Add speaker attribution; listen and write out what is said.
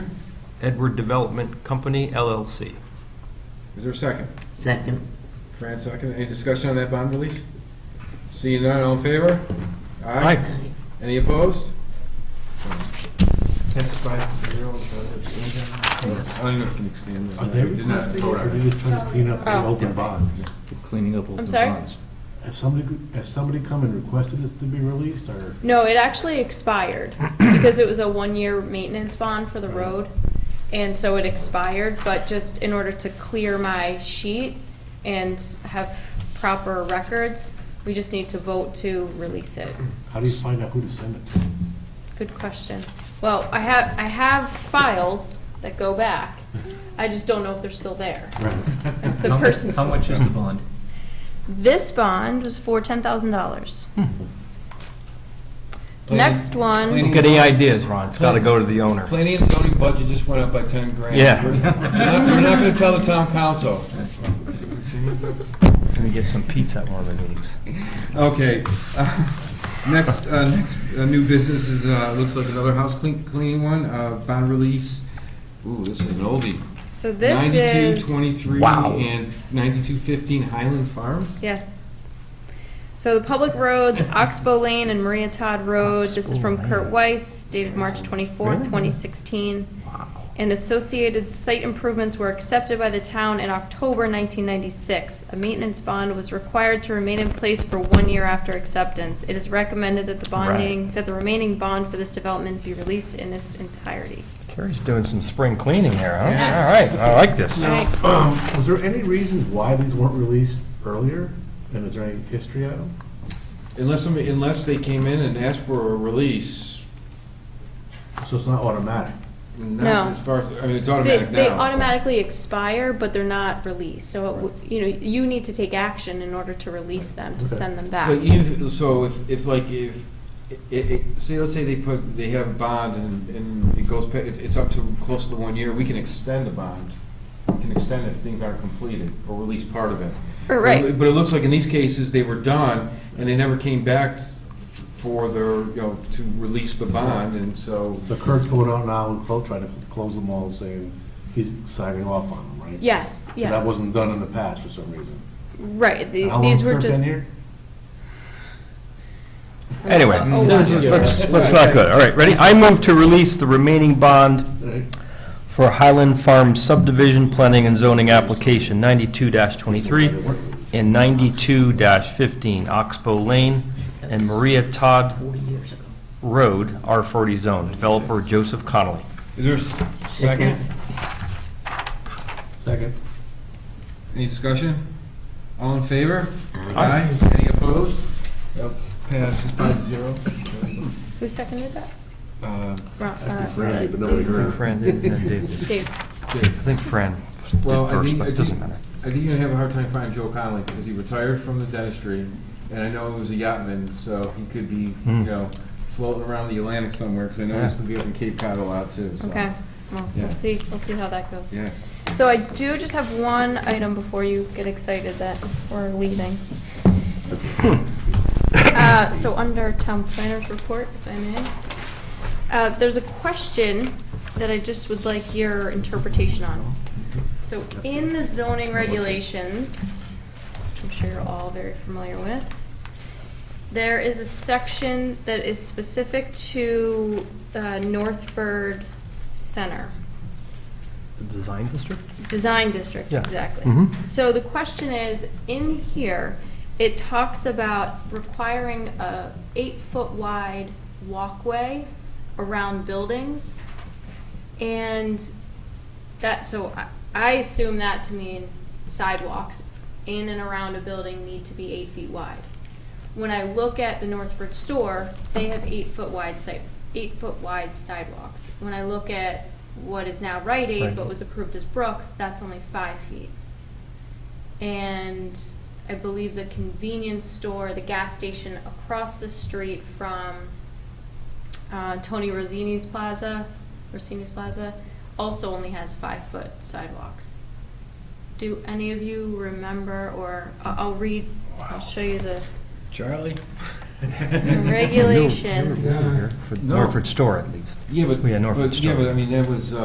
Speaker 1: Edward Development Company LLC.
Speaker 2: Is there a second?
Speaker 3: Second.
Speaker 2: Fran, second. Any discussion on that bond release? Seeing none, all in favor?
Speaker 1: Aye.
Speaker 2: Any opposed? That's five to zero. I don't know if you can extend that.
Speaker 4: Are they
Speaker 2: We did not
Speaker 4: requesting,
Speaker 2: vote
Speaker 4: or
Speaker 2: on it.
Speaker 4: are they just trying to clean up the
Speaker 5: Oh.
Speaker 4: open bonds?
Speaker 6: Cleaning up open
Speaker 5: sorry?
Speaker 6: bonds.
Speaker 4: Has somebody, has somebody come and requested this to be released, or?
Speaker 5: No, it actually expired because it was a one-year maintenance bond for the road. And so it expired, but just in order to clear my sheet and have proper records, we just need to vote to release it.
Speaker 4: How do you find out who to send it to?
Speaker 5: Good question. Well, I have, I have files that go back. I just don't know if they're still there. If the
Speaker 6: How much-
Speaker 5: person's.
Speaker 6: How much is the bond?
Speaker 5: This bond was for ten thousand dollars.
Speaker 2: Planning-
Speaker 5: Next one,
Speaker 2: planning-
Speaker 1: Don't get any ideas, Ron. It's got to go to the owner.
Speaker 2: Planning and zoning budget just went up by 10 grand.
Speaker 1: Yeah.
Speaker 2: We're not- we're not going to tell the town council.
Speaker 1: Gonna get some pizza at one of the meetings.
Speaker 2: Okay. uh, Next, uh, next uh, new business is, uh, looks like another house clean- cleaning one, uh, bond release. Ooh, this is an oldie.
Speaker 5: so this is.
Speaker 2: 9223
Speaker 1: Wow.
Speaker 2: and 9215 Highland Farms?
Speaker 5: Yes. So the public roads, Oxbow Lane and Maria Todd Road, this is from Kurt Weiss, dated March twenty-fourth, twenty sixteen. And associated site improvements were accepted by the town in October nineteen ninety-six. A maintenance bond was required to remain in place for one year after acceptance. It is recommended that the bonding, that the remaining bond for this development be released in its entirety.
Speaker 1: Carrie's doing some spring cleaning here, huh?
Speaker 5: Yes.
Speaker 1: All right, I like this.
Speaker 4: Um, Was there any reason why these weren't released earlier? And is there any history on them?
Speaker 2: Unless, somebody- unless they came in and asked for a release,
Speaker 4: So it's not automatic?
Speaker 5: No.
Speaker 2: not as far as, I mean, it's
Speaker 5: They,
Speaker 2: automatic now.
Speaker 5: they automatically expire, but they're not released, so, it w- you know, you need to take action in order to release them, to
Speaker 4: Okay.
Speaker 5: send them
Speaker 2: So
Speaker 5: back.
Speaker 2: even, if- so if, if like, if, i- i- say, let's say they put, they have a bond and, and it goes, pa- it- it's up to close to one year, we can extend the bond. We can extend it if things aren't completed or release part of it.
Speaker 5: Or, Right,
Speaker 2: But it looks like in these cases, they were done and they never came back f- for their, you know, to release the bond and so.
Speaker 4: So Kurt's going out now and clo- trying to close them all, saying he's signing off on them, right?
Speaker 5: yes,
Speaker 4: So That
Speaker 5: yes,
Speaker 4: wasn't done in the past for some reason.
Speaker 5: right, the-
Speaker 4: How long's
Speaker 5: these were
Speaker 4: Kurt been
Speaker 5: just.
Speaker 4: here?
Speaker 1: Anyway,
Speaker 5: Oh,
Speaker 1: this is-
Speaker 5: wow.
Speaker 1: let's, let's not go. All right, ready? I move to release the remaining bond
Speaker 4: Right.
Speaker 1: for Highland Farm subdivision planning and zoning application ninety-two
Speaker 4: Why they
Speaker 1: twenty-three
Speaker 4: weren't released.
Speaker 1: and ninety-two fifteen Oxbow Lane and Maria Todd
Speaker 3: Forty years ago.
Speaker 1: Road, R forty zone, developer Joseph Connolly.
Speaker 2: Is there a s- second?
Speaker 4: Second.
Speaker 2: Any discussion? All in favor?
Speaker 1: Aye.
Speaker 2: Any opposed? That Passes five to zero.
Speaker 5: Who seconded that?
Speaker 2: Uh,
Speaker 5: Ron- uh,
Speaker 4: Friendly, but
Speaker 5: Dave.
Speaker 4: nobody heard.
Speaker 1: Fran did, and then Dave did.
Speaker 5: Dave,
Speaker 1: I think Fran did
Speaker 2: Well, I
Speaker 1: first,
Speaker 2: think-
Speaker 1: but
Speaker 2: I
Speaker 1: it doesn't
Speaker 2: think-
Speaker 1: matter.
Speaker 2: I think you're gonna have a hard time finding Joe Connolly because he retired from the dentistry, and I know he was a yachtman, so he could be, you
Speaker 1: Hmm.
Speaker 2: know, floating around the Atlantic somewhere, because I know he used to be up in Cape Cod a lot too, so.
Speaker 5: okay, well,
Speaker 2: Yeah.
Speaker 5: we'll see, we'll see how that goes.
Speaker 2: Yeah.
Speaker 5: So I do just have one item before you get excited that we're leaving. Uh, So under town planner's report, if I may, uh, there's a question that I just would like your interpretation on. So in the zoning regulations, which I'm sure you're all very familiar with, there is a section that is specific to uh, Northford Center.
Speaker 1: The design district?
Speaker 5: Design district,
Speaker 1: Yeah.
Speaker 5: exactly.
Speaker 1: Mhm.
Speaker 5: So the question is, in here, it talks about requiring a eight-foot wide walkway around buildings. And that, so I, I assume that to mean sidewalks in and around a building need to be eight feet wide. When I look at the Northford store, they have eight-foot wide site, eight-foot wide sidewalks. When I look at what is now Rite Aid,
Speaker 1: Right.
Speaker 5: but was approved as Brooks, that's only five feet. And I believe the convenience store, the gas station across the street from uh, Tony Rosini's Plaza, Rossini's Plaza, also only has five-foot sidewalks. Do any of you remember, or I- I'll read, I'll show you the
Speaker 2: Charlie?
Speaker 5: the regulation.
Speaker 1: Regulation. For
Speaker 2: No.
Speaker 1: Norfolk store, at least.
Speaker 2: Yeah, but,
Speaker 1: We had Norfolk
Speaker 2: but, yeah,
Speaker 1: Star.
Speaker 2: but I mean, that was, uh,